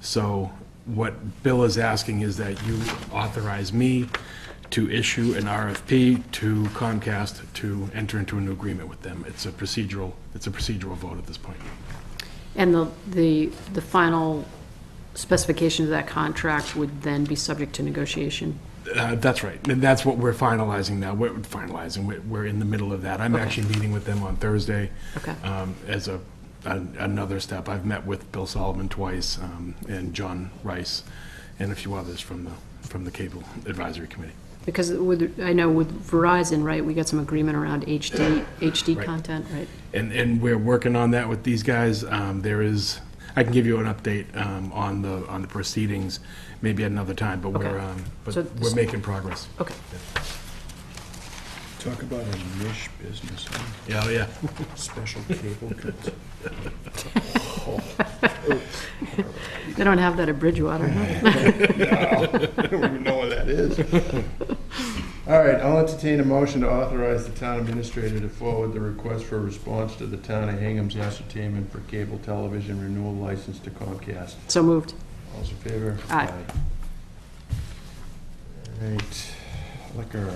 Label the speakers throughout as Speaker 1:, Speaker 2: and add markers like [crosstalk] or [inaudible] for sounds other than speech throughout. Speaker 1: So what Bill is asking is that you authorize me to issue an RFP to Comcast to enter into a new agreement with them. It's a procedural, it's a procedural vote at this point.
Speaker 2: And the, the, the final specifications of that contract would then be subject to negotiation?
Speaker 1: Uh, That's right, and that's what we're finalizing now, we're finalizing, We're- we're in the middle of that. I'm actually meeting with them on Thursday.
Speaker 2: Okay.
Speaker 1: um, As a, an- another step, I've met with Bill Solomon twice, um, and John Rice, and a few others from the, from the Cable Advisory Committee.
Speaker 2: Because with, I know with Verizon, right, we got some agreement around HD, HD
Speaker 1: Right.
Speaker 2: content, right?
Speaker 1: And, and we're working on that with these guys. Um, There is, I can give you an update um, on the, on the proceedings, maybe at another time, but
Speaker 2: Okay.
Speaker 1: we're, um, but
Speaker 2: So-
Speaker 1: we're making progress.
Speaker 2: Okay.
Speaker 3: Talk about a niche business, huh?
Speaker 1: Yeah, oh, [laughs] yeah.
Speaker 3: special [laughs] cable cuts.
Speaker 2: They don't have that at Bridgewater, huh?
Speaker 3: I don't even know what that is. All right, I'll entertain a motion to authorize the town administrator to forward the request for a response to the town of Hingham's ascertainment for cable television renewal license to Comcast.
Speaker 2: So moved.
Speaker 3: All's in favor?
Speaker 2: Aye.
Speaker 3: All right, liquor.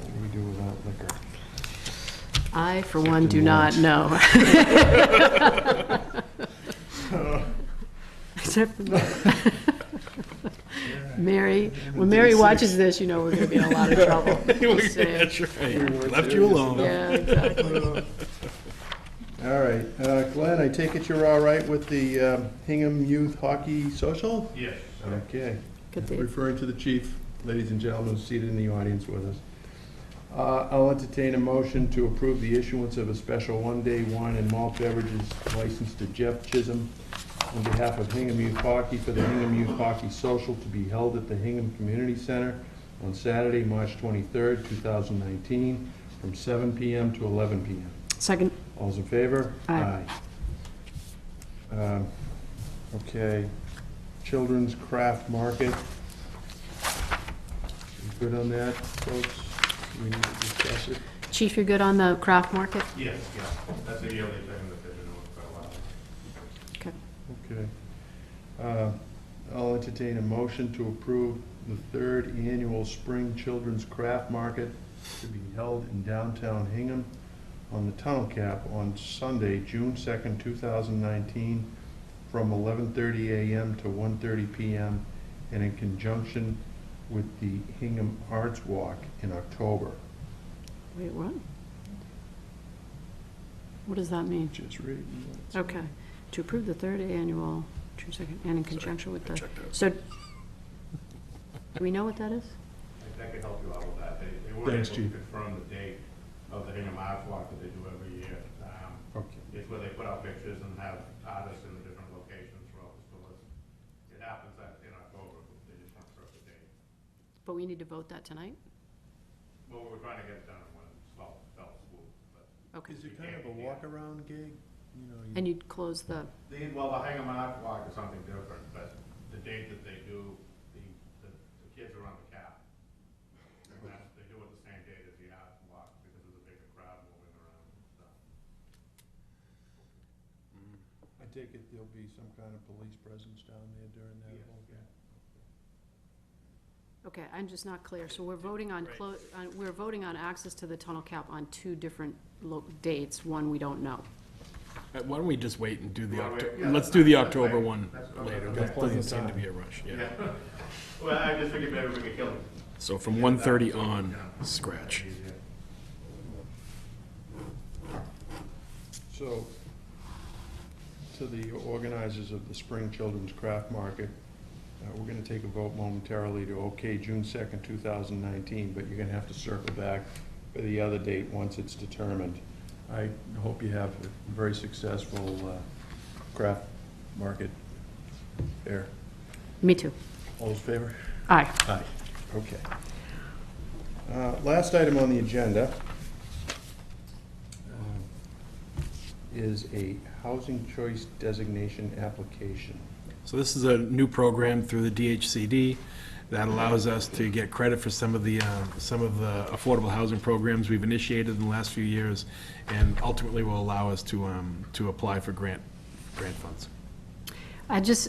Speaker 3: What do we do without liquor?
Speaker 2: I, for one, do not know. [laughs] Except for- Mary, when Mary watches this, you know we're gonna be in a lot of trouble.
Speaker 1: [laughs]
Speaker 2: Just saying.
Speaker 1: Left you alone.
Speaker 2: Yeah, exactly.
Speaker 3: All right, uh, Glenn, I take it you're all right with the um, Hingham Youth Hockey Social?
Speaker 4: Yes.
Speaker 3: Okay.
Speaker 2: Good day.
Speaker 3: Referring to the chief, ladies and gentlemen seated in the audience with us. Uh, I'll entertain a motion to approve the issuance of a special one-day wine and malt beverages license to Jeff Chisholm on behalf of Hingham Youth Hockey for the Hingham Youth Hockey Social to be held at the Hingham Community Center on Saturday, March 23rd, 2019, from 7 PM to 11 PM.
Speaker 2: Second,
Speaker 3: All's in favor?
Speaker 2: Aye.
Speaker 3: Aye. Um, Okay, Children's Craft Market. You Good on that, folks? We need to discuss it.
Speaker 2: Chief, you good on the craft market?
Speaker 4: Yes, yeah, that's a yearly thing that they've been doing for a while.
Speaker 2: Okay.
Speaker 3: Okay. Uh, I'll entertain a motion to approve the third annual Spring Children's Craft Market to be held in downtown Hingham on the Tunnel Cap on Sunday, June second, two thousand nineteen, from eleven thirty AM to 1:30 PM, and in conjunction with the Hingham Arts Walk in October.
Speaker 2: Wait, what? What does that mean?
Speaker 3: Just reading.
Speaker 2: Okay. To approve the third annual, June 2nd, and in conjunction with the,
Speaker 1: checked out.
Speaker 2: so, do we know what that is?
Speaker 4: If that could help you out with that, they, they were able
Speaker 3: Thanks,
Speaker 4: to
Speaker 3: Chief.
Speaker 4: confirm the date of the Hingham Art Walk that they do every year. Um,
Speaker 3: Okay.
Speaker 4: It's where they put out pictures and have artists in the different locations throughout the stores. It happens at, in October, but they just want to the date.
Speaker 2: But we need to vote that tonight?
Speaker 4: Well, we're trying to get it done in one small, small school, but.
Speaker 2: Okay.
Speaker 4: it kind of a
Speaker 3: walk-around gig?
Speaker 2: And you'd close the,
Speaker 4: They, well, the Hingham Art Walk is something different, but the date that they do, the, the the kids are on the cap. And that's, they do it the same date as the Art Walk because of the bigger crowd moving around and stuff.
Speaker 3: I take it there'll be some kind of police presence down there during that
Speaker 4: Yes,
Speaker 3: whole thing?
Speaker 2: okay, I'm just not clear. So we're voting on, clo- on- we're voting on access to the tunnel cap on two different lo- dates, one we don't know.
Speaker 1: Uh, Why don't we just wait and do the,
Speaker 4: Why don't we-
Speaker 1: Octo-
Speaker 4: yeah,
Speaker 1: let's do the
Speaker 4: that's
Speaker 1: October
Speaker 4: fine.
Speaker 1: one
Speaker 4: That's fine.
Speaker 1: later.
Speaker 4: Okay.
Speaker 1: That
Speaker 3: Plenty
Speaker 1: doesn't seem
Speaker 3: of
Speaker 1: to
Speaker 3: time.
Speaker 1: be a rush, yeah.
Speaker 4: Yeah. Well, I just figured maybe we could kill it.
Speaker 1: So from
Speaker 4: Yeah,
Speaker 1: 1:30
Speaker 4: that's-
Speaker 1: on,
Speaker 4: yeah.
Speaker 1: scratch.
Speaker 4: Easier.
Speaker 3: So, to the organizers of the Spring Children's Craft Market, uh, we're gonna take a vote momentarily to okay June second, two thousand nineteen, but you're gonna have to circle back for the other date once it's determined. I hope you have a very successful uh, craft market fair.
Speaker 2: Me too.
Speaker 3: All those in favor?
Speaker 2: Aye.
Speaker 3: Aye. Okay. Uh, Last item on the agenda um, is a housing choice designation application.
Speaker 1: So this is a new program through the DHCD that allows us to get credit for some of the, uh, some of the affordable housing programs we've initiated in the last few years, and ultimately will allow us to, um, to apply for grant, grant funds.
Speaker 2: I just,